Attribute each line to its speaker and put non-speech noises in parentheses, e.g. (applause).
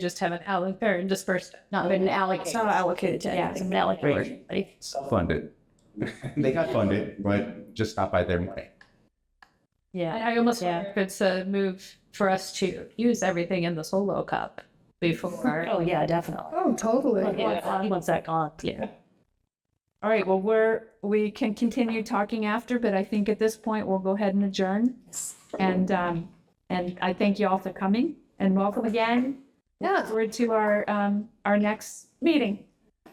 Speaker 1: just have an out there and dispersed it, not been
Speaker 2: been
Speaker 1: allocated.
Speaker 2: allocated. allocated to.
Speaker 1: Yeah, it's been allocated.
Speaker 3: self-funded. (laughs) they got funded, but just not by their money.
Speaker 2: Yeah.
Speaker 1: I I almost
Speaker 2: Yeah.
Speaker 1: wonder if it's a move for us to use everything in the solo cup before.
Speaker 2: Oh, yeah, definitely.
Speaker 4: Oh, totally.
Speaker 2: Yeah. Once that gone, yeah.
Speaker 4: All right, well, we're, we can continue talking after, but I think at this point, we'll go ahead and adjourn. And, um, and I thank you all for coming and welcome again. Yeah. Forward to our, um, our next meeting.